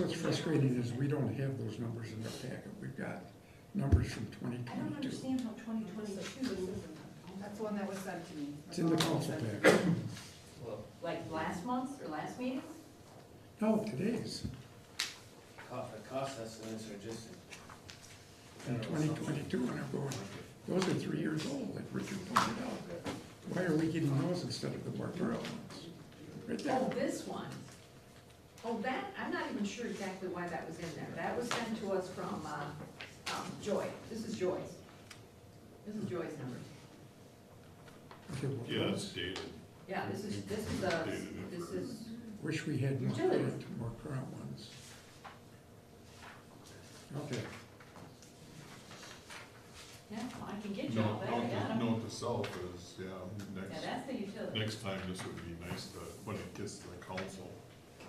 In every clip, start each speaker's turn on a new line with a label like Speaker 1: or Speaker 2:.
Speaker 1: What's frustrating is we don't have those numbers in the packet. We've got numbers from twenty
Speaker 2: I don't
Speaker 1: twenty-two.
Speaker 2: understand how twenty twenty-two is,
Speaker 3: That's the one that was sent to me.
Speaker 1: It's in the council packet.
Speaker 4: Well,
Speaker 2: like last month's or last meeting's?
Speaker 1: No, today's,
Speaker 4: co- the cost estimates are just.
Speaker 1: in twenty twenty-two, and I'm going, those are three years old, like Richard pointed out. Why are we getting those instead of the Barbarella ones? Right
Speaker 2: Oh,
Speaker 1: there.
Speaker 2: this one. Oh, that, I'm not even sure exactly why that was in there. That was sent to us from, uh, um, Joy. This is Joy's. This is Joy's number.
Speaker 1: Okay, well,
Speaker 5: Yeah, it's dated.
Speaker 2: Yeah, this is, this is a, this is,
Speaker 1: Wish we had more
Speaker 2: Utility.
Speaker 1: current, more current ones. Okay,
Speaker 2: yeah, well, I can get you all
Speaker 5: Note,
Speaker 6: eh?
Speaker 2: that, I
Speaker 5: note,
Speaker 2: got
Speaker 5: to-
Speaker 2: 'em.
Speaker 5: note to self is, yeah,
Speaker 2: Yeah,
Speaker 5: next,
Speaker 2: that's the utility.
Speaker 5: next time this would be nice to, when it gets to the council,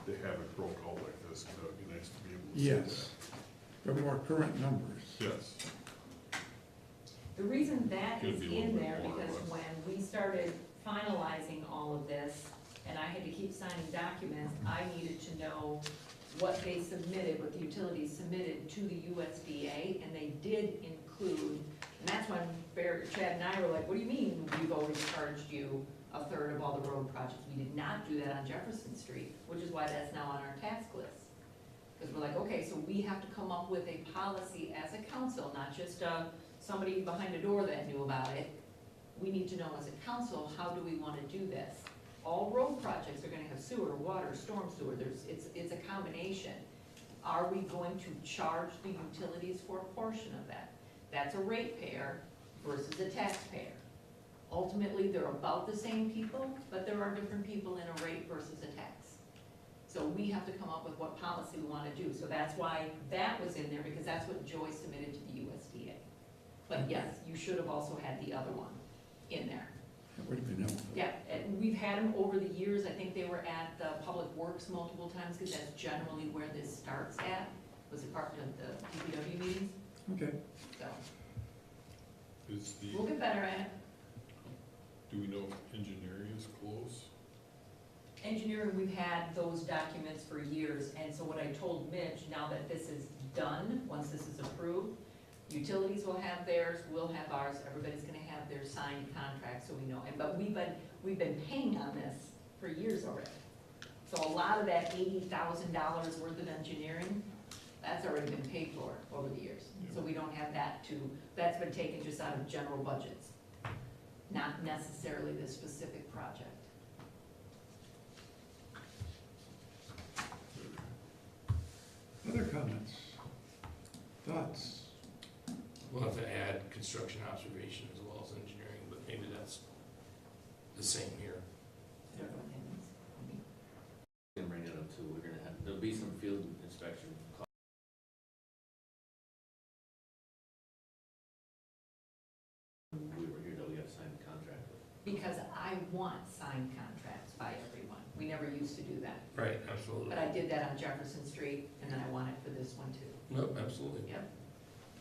Speaker 5: they have it broke out like this, and that would be nice to be able to see that.
Speaker 1: yes, but more current numbers.
Speaker 5: Yes,
Speaker 6: The reason that
Speaker 5: Could
Speaker 6: is
Speaker 5: be a little
Speaker 6: in
Speaker 5: bit
Speaker 6: there,
Speaker 5: more or
Speaker 6: because
Speaker 5: less.
Speaker 6: when we started finalizing all of this, and I had to keep signing documents, I needed to know what they submitted, what the utilities submitted to the USDA, and they did include, and that's when Barry, Chad and I were like, what do you mean, we've already charged you a third of all the road projects? We did not do that on Jefferson Street, which is why that's now on our task list. Because we're like, okay, so we have to come up with a policy as a council, not just a, somebody behind a door that knew about it. We need to know as a council, how do we wanna do this? All road projects are gonna have sewer, water, storm sewer, there's, it's, it's a combination. Are we going to charge the utilities for a portion of that? That's a ratepayer versus a taxpayer. Ultimately, they're about the same people, but there are different people in a rate versus a tax. So we have to come up with what policy we wanna do, so that's why that was in there, because that's what Joy submitted to the USDA. But yes, you should have also had the other one in there.
Speaker 1: That would have been helpful.
Speaker 6: Yeah, and we've had them over the years, I think they were at the Public Works multiple times, because that's generally where this starts at, was it part of the DPW meetings,
Speaker 1: Okay,
Speaker 6: so,
Speaker 5: is the,
Speaker 6: we'll get better at it.
Speaker 5: do we know if engineering is close?
Speaker 6: Engineering, we've had those documents for years, and so what I told Mitch, now that this is done, once this is approved, utilities will have theirs, we'll have ours, everybody's gonna have their signed contract, so we know, and, but we've been, we've been paying on this for years already. So a lot of that eighty thousand dollars worth of engineering, that's already been paid for over the years, so we don't have that to, that's been taken just out of general budgets, not necessarily this specific project.
Speaker 1: other comments? Thoughts?
Speaker 7: We'll have to add construction observation as well as engineering, but maybe that's the same here.
Speaker 4: We Can bring it up too, we're gonna have, there'll be some field inspection costs we were here that we got signed the contract with.
Speaker 6: Because I want signed contracts by everyone. We never used to do that.
Speaker 7: Right, absolutely.
Speaker 6: But I did that on Jefferson Street, and then I want it for this one too.
Speaker 7: Nope, absolutely.
Speaker 6: Yep.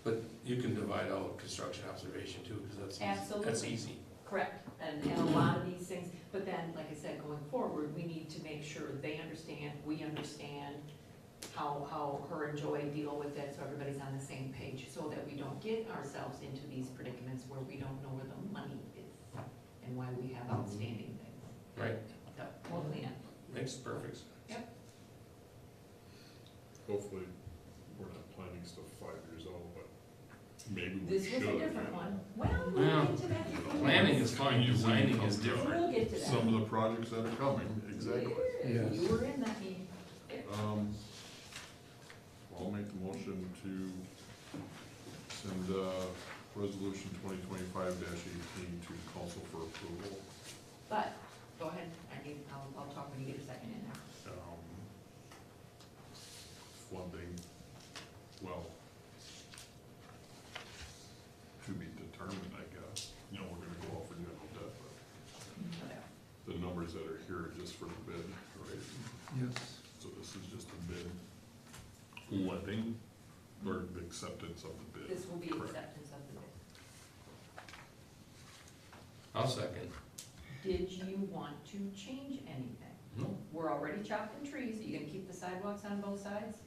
Speaker 7: But you can divide out construction observation too, because that's, eas- that's
Speaker 6: Absolutely.
Speaker 7: easy.
Speaker 6: Correct. And, and a lot of these things, but then, like I said, going forward, we need to make sure they understand, we understand how, how her and Joy deal with it, so everybody's on the same page, so that we don't get ourselves into these predicaments where we don't know where the money is and why we have outstanding things.
Speaker 7: Right,
Speaker 6: So, we'll clean up.
Speaker 7: makes perfect sense.
Speaker 5: Hopefully, we're not planning stuff five years old, but maybe we
Speaker 6: This
Speaker 5: should.
Speaker 6: was a different one. Well,
Speaker 7: Well,
Speaker 6: we'll get to that. in a few
Speaker 7: Planning
Speaker 6: minutes.
Speaker 7: is fine, designing is
Speaker 6: We'll
Speaker 7: different.
Speaker 6: get to that.
Speaker 5: Some of the projects that are coming, exactly.
Speaker 6: Yeah,
Speaker 1: Yes.
Speaker 6: You were in that meeting.
Speaker 5: Um, I'll make the motion to send, uh, resolution twenty twenty-five eighteen to council for approval.
Speaker 6: But, go ahead, I need, I'll, I'll talk when you get a second in there.
Speaker 5: Um, Funding, well, to be determined, I guess. You know, we're gonna go out for general debt, but
Speaker 6: Whatever.
Speaker 5: the numbers that are here are just for the bid, right?
Speaker 1: Yes.
Speaker 5: So this is just a bid letting or acceptance of the bid.
Speaker 6: This will be
Speaker 5: Correct.
Speaker 6: acceptance of the bid.
Speaker 7: I'll second.
Speaker 6: Did you want to change anything?
Speaker 7: No,
Speaker 6: We're already chopping trees, are you gonna keep the sidewalks on both sides?